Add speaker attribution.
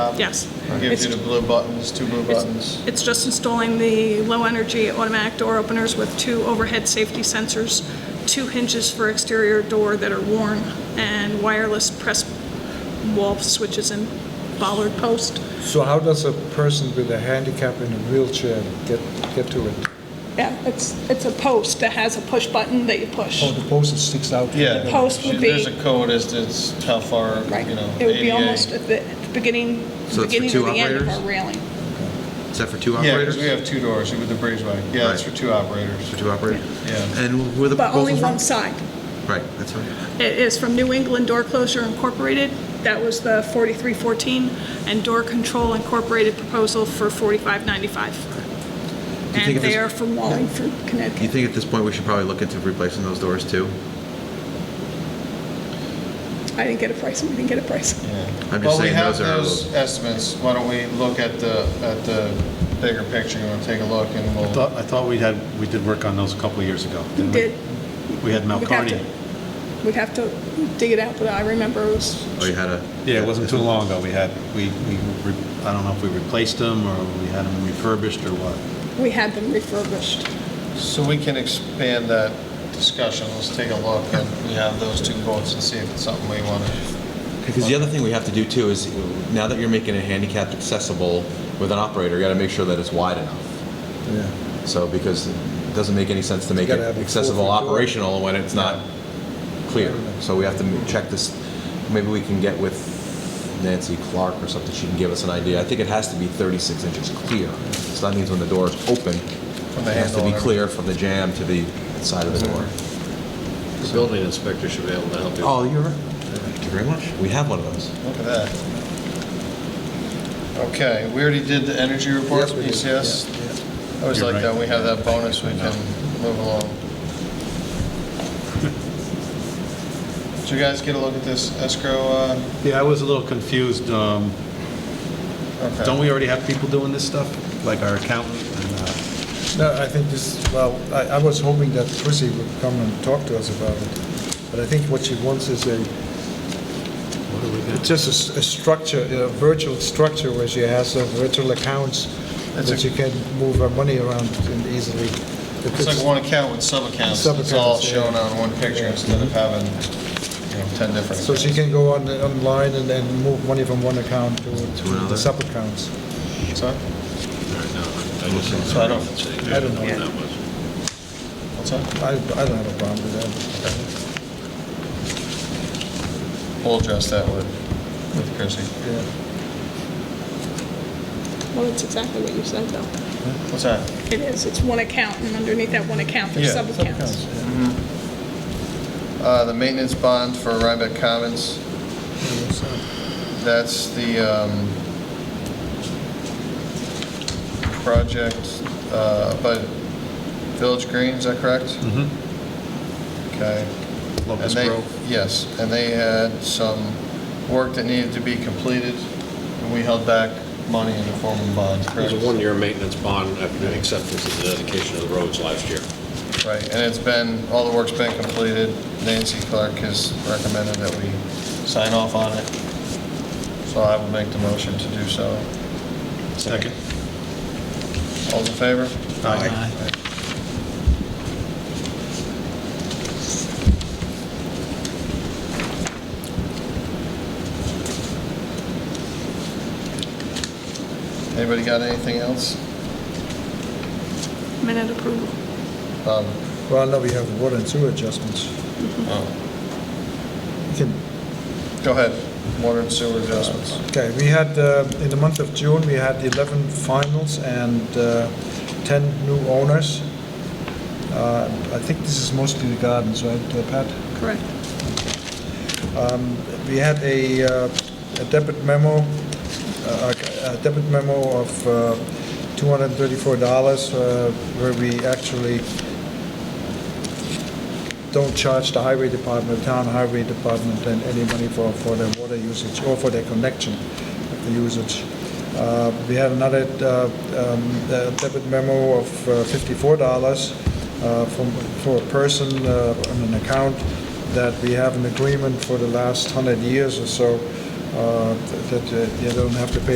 Speaker 1: out.
Speaker 2: Yes.
Speaker 1: Um, It Gives you the blue buttons, two blue buttons.
Speaker 2: It's just installing the low-energy automatic door openers with two overhead safety sensors, two hinges for exterior door that are worn, and wireless press wall switches and bollard post.
Speaker 3: So how does a person with a handicap in a wheelchair get, get to it?
Speaker 2: Yeah, it's, it's a post that has a push button that you push.
Speaker 3: Oh, the post that sticks out?
Speaker 1: Yeah.
Speaker 2: post would
Speaker 1: There's
Speaker 2: be-
Speaker 1: a code as to it's how far,
Speaker 2: Right.
Speaker 1: you know,
Speaker 2: It would be
Speaker 1: ADA.
Speaker 2: almost at the at the beginning,
Speaker 4: So it's for
Speaker 2: beginning
Speaker 4: two
Speaker 2: or the end of our
Speaker 4: operators?
Speaker 2: railing.
Speaker 4: Is that for two
Speaker 1: Yeah,
Speaker 4: operators?
Speaker 1: because we have two doors with the breezeway. Yeah, it's
Speaker 4: Right.
Speaker 1: for two
Speaker 4: For
Speaker 1: operators.
Speaker 4: two operators?
Speaker 1: Yeah.
Speaker 4: And where the
Speaker 2: But only
Speaker 4: proposal from?
Speaker 2: one side.
Speaker 4: Right, that's right.
Speaker 2: It is from New England Door Closure Incorporated. That was the 4314, and Door Control Incorporated proposal for 4595.
Speaker 4: Do you think
Speaker 2: And
Speaker 4: if this-
Speaker 2: they are from Wallingford,
Speaker 4: Do you
Speaker 2: Connecticut.
Speaker 4: think at this point we should probably look into replacing those doors too?
Speaker 2: I didn't get a price, we didn't get a price.
Speaker 1: Yeah.
Speaker 4: I'm just
Speaker 1: Well, we
Speaker 4: saying
Speaker 1: have
Speaker 4: those are a
Speaker 1: those estimates. Why don't we look at the, at the bigger picture and take a look and
Speaker 5: I
Speaker 1: we'll,
Speaker 5: thought, I thought we had, we did work on those a couple of years ago.
Speaker 2: We
Speaker 5: didn't
Speaker 2: did,
Speaker 5: We had
Speaker 2: We'd have
Speaker 5: Malcarney.
Speaker 2: to- we'd have to dig it out, but I remember it was,
Speaker 4: Oh, you had a.
Speaker 5: Yeah, it wasn't too long ago. We had, we, we, re- I don't know if we replaced them or we had them refurbished or what.
Speaker 2: we had them refurbished.
Speaker 1: so we can expand that discussion. Let's take a look and we have those two quotes and see if it's something we want to.
Speaker 4: Because the other thing we have to do too is, now that you're making it handicapped accessible with an operator, you gotta make sure that it's wide enough.
Speaker 3: Yeah.
Speaker 4: So, because it doesn't make any sense to make it
Speaker 3: gotta have a
Speaker 4: accessible
Speaker 3: four-foot door.
Speaker 4: operational when it's not clear. So we have to check this, maybe we can get with Nancy Clark or something, she can give us an idea. I think it has to be 36 inches clear. So that means when the door is open,
Speaker 1: From the
Speaker 4: it has to
Speaker 1: handle
Speaker 4: be
Speaker 1: and
Speaker 4: clear from the jam to the side of the door.
Speaker 6: The building inspector should be able to help you.
Speaker 4: Oh, you're right. Thank you very much. We have one of those.
Speaker 1: Look at that. Okay, we already did the energy report,
Speaker 3: Yes, we did.
Speaker 1: ECS. I always
Speaker 5: You're
Speaker 1: like
Speaker 5: right.
Speaker 1: that, we have that bonus, we can move along. Did you guys get a look at this escrow? uh,
Speaker 5: Yeah, I was a little confused. um,
Speaker 1: okay.
Speaker 5: Don't we already have people doing this stuff, like our accountant? and, uh,
Speaker 3: No, I think this, well, I, I was hoping that Chrissy would come and talk to us about it. But I think what she wants is a,
Speaker 5: what do we got?
Speaker 3: it's just a s- a, structure, a virtual structure where she has uh, virtual accounts
Speaker 1: That's a-
Speaker 3: that she can move her money around and easily. If
Speaker 1: It's like one account with sub-accounts, it's all
Speaker 3: Sub-accounts, yeah.
Speaker 1: shown on one picture instead of having, you know, 10 different.
Speaker 3: So she
Speaker 1: accounts.
Speaker 3: can go on, online and then move money from one account to to the
Speaker 4: another?
Speaker 3: sub-accounts.
Speaker 1: Sorry?
Speaker 6: So
Speaker 1: So I don't-
Speaker 3: I don't know.
Speaker 6: That was,
Speaker 1: What's that?
Speaker 3: I, I don't have a problem with that.
Speaker 1: We'll address that with, with Chrissy.
Speaker 3: Yeah.
Speaker 2: Well, it's exactly what you said, though.
Speaker 1: What's that?
Speaker 2: It is, it's one account, and underneath that one account, there's
Speaker 1: Yeah,
Speaker 2: sub-accounts.
Speaker 1: Uh, The maintenance bond for Rhinebeck Commons, that's the um, project uh, by Village Green, is that correct? Mm-hmm. Okay. And
Speaker 5: Locust
Speaker 1: they-
Speaker 5: Grove?
Speaker 1: Yes, and they had some work that needed to be completed, and we held back money in the form of bonds,
Speaker 6: it was
Speaker 1: correct?
Speaker 6: a one-year maintenance bond after the acceptance of the dedication of the roads last year.
Speaker 1: Right, and it's been, all the work's been completed. Nancy Clark has recommended that we sign off on it. So I will make the motion to do so.
Speaker 5: Second?
Speaker 1: All in favor?
Speaker 5: Aye.
Speaker 1: Anybody got anything else?
Speaker 2: Minute approval.
Speaker 1: Bob?
Speaker 3: Well, now we have water and sewer adjustments.
Speaker 1: Oh,
Speaker 3: You can
Speaker 1: Go ahead, water and sewer adjustments.
Speaker 3: Okay, we had, uh, in the month of June, we had 11 finals and uh, 10 new owners. Uh, I think this is mostly the gardens, right, uh, Pat?
Speaker 2: Correct.
Speaker 3: Um, We had a uh, a debit memo, uh, a debit memo of uh, $234 uh, where we actually don't charge the highway department, town highway department, and any money for, for their water usage or for their connection of the usage. Uh, We had another uh, um, uh, debit memo of uh, $54 uh, from, for a person uh, on an account that we have an agreement for the last 100 years or so, uh, that uh, you don't have to pay